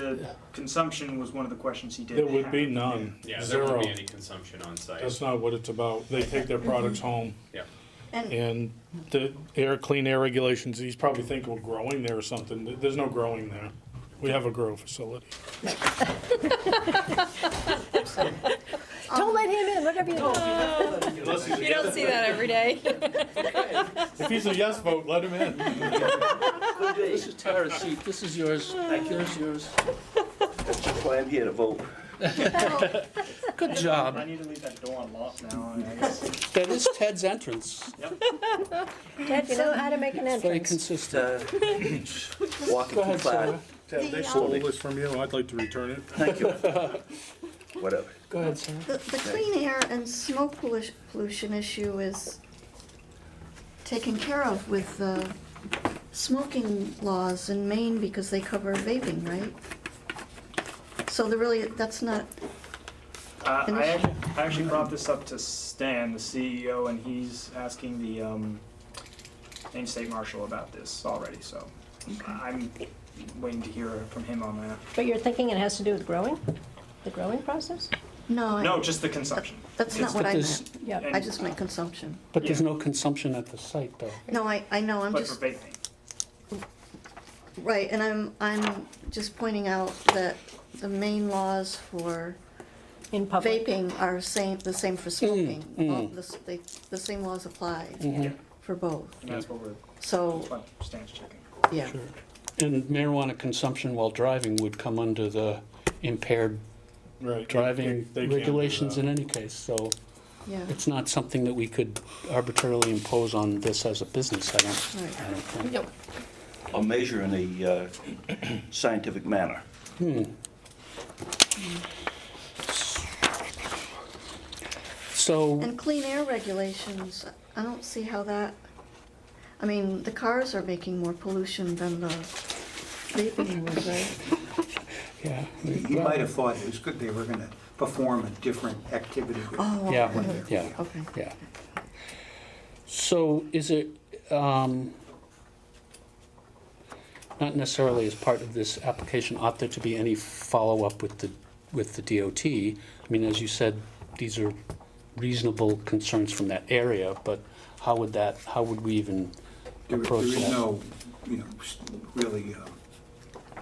the consumption was one of the questions he did There would be have. none, Yeah, there zero. won't be any consumption on site. That's not what it's about. They take their products home. Yeah. And And the air, clean air regulations, he's probably thinking we're growing there or something. There- There's no growing there. We have a grow facility. Don't let him in, whatever you do. You don't see that every day. If he's a yes vote, let him in. This is Tara's seat, this is yours, yours, yours. That's why I'm here to vote. Good job. I need to leave that door unlocked now, I guess. Uh, That is Ted's entrance, Ted, you know how to make an very entrance. consistent. Uh, Walking too far. They stole stole this this from you. I'd like to return it. Thank you. Whatever. Go ahead, Sarah. the, the clean air and smoke pollu- pollution issue is taken care of with the smoking laws in Maine because they cover vaping, right? So there really, that's not, Uh, I Finish. actually, I actually brought this up to Stan, the CEO, and he's asking the, um, Maine State Marshal about this already, so I'm waiting to hear from him on that. But you're thinking it has to do with growing? The growing process? no, No, I- just the consumption. that's it's not what But I there's, meant. Yeah. I just meant consumption. but there's no consumption at the site, though. No, I, I know, I'm But just. for vaping. Right, and I'm, I'm just pointing out that the main laws for In public? vaping are same, the same for smoking. mm. All the s- they- The same laws apply Mm-hmm. Yeah, for both. and that's what we're, that's So, what Stan's checking. yeah, And marijuana consumption while driving would come under the impaired Right. driving They can't do regulations that. in any case, so yeah, it's not something that we could arbitrarily impose on this as a business, I don't, right. I don't think. Nope. I'll measure in a uh, scientific manner. So, And clean air regulations, I don't see how that, I mean, the cars are making more pollution than the vaping was, right? yeah. You might have thought it was good they were going to perform a different activity. Oh, Yeah, yeah. okay. Yeah. So is it, um, not necessarily as part of this application, ought there to be any follow-up with the, with the DOT? I mean, as you said, these are reasonable concerns from that area, but how would that, how would we even There there approach is that? no, you know, s- really um,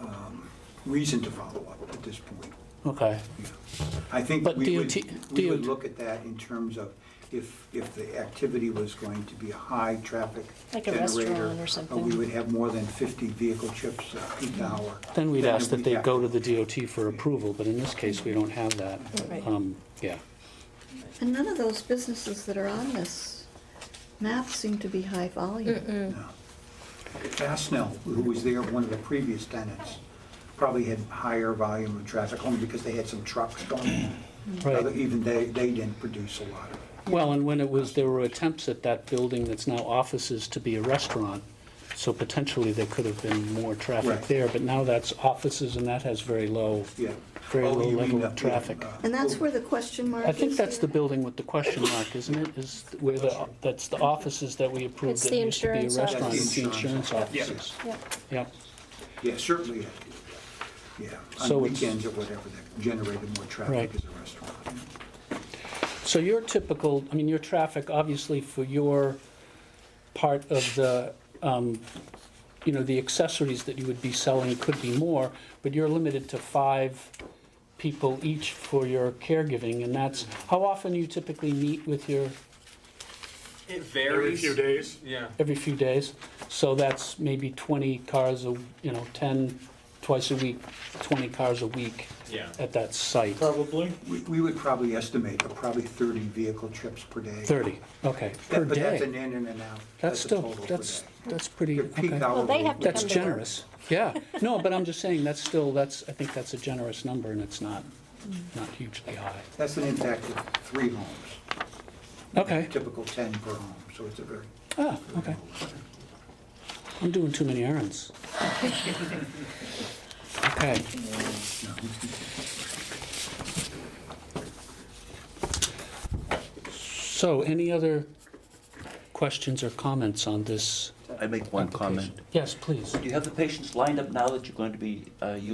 um, reason to follow up at this point. Okay, you know. I think But we would, DOT we would DOT look at that in terms of if, if the activity was going to be a high-traffic Like a generator. restaurant or uh, We something. would have more than 50 vehicle trips uh, peak hour. Mm. then we'd ask that they we'd go to have- the DOT for approval, but in this case, we don't have that. Right. Um, Yeah, And none of those businesses that are on this map seem to be high volume. No. Fastenal, who was there, one of the previous tenants, probably had higher volume of traffic only because they had some trucks going. right. Other- Even they, they didn't produce a lot of it. Well, and when it was, there were attempts at that building that's now offices to be a restaurant, so potentially there could have been more traffic Right. there, but now that's offices and that has very low, Yeah. very Oh, low you mean uh, level up of there, traffic. uh, And that's where the question mark is I think that's the here? building with the question mark, isn't it? Is where the, that's the offices that we approved It's that the used to be a insurance restaurant. office. It's the insurance Yeah. offices. Yeah. Yep, Yeah, certainly, uh, yeah. So On it's- weekends or whatever, that generated more Right. traffic as a restaurant. so your typical, I mean, your traffic, obviously for your part of the, um, you know, the accessories that you would be selling could be more, but you're limited to five people each for your caregiving, and that's, how often you typically meet with your, It Every varies. few days. Yeah. every few days? So that's maybe 20 cars, a you know, 10, twice a week, 20 cars a week Yeah. at that site? Probably. We, we would probably estimate uh, probably 30 vehicle trips per day. 30, okay, That- per But that's an day? in and an out. That's a still, total per that's, day. that's pretty, Your peak okay. hour Well, they would have be- to That's come to work. generous, yeah. No, but I'm just saying, that's still, that's, I think that's a generous number, and it's not, not hugely high. That's an impact of three homes. Okay, typical 10 per home, so it's a very. ah, okay. I'm doing too many errands. Okay. So, any other questions or comments on this? I make one comment. Yes, please. Do you have the patients lined up now that you're going to be uh, using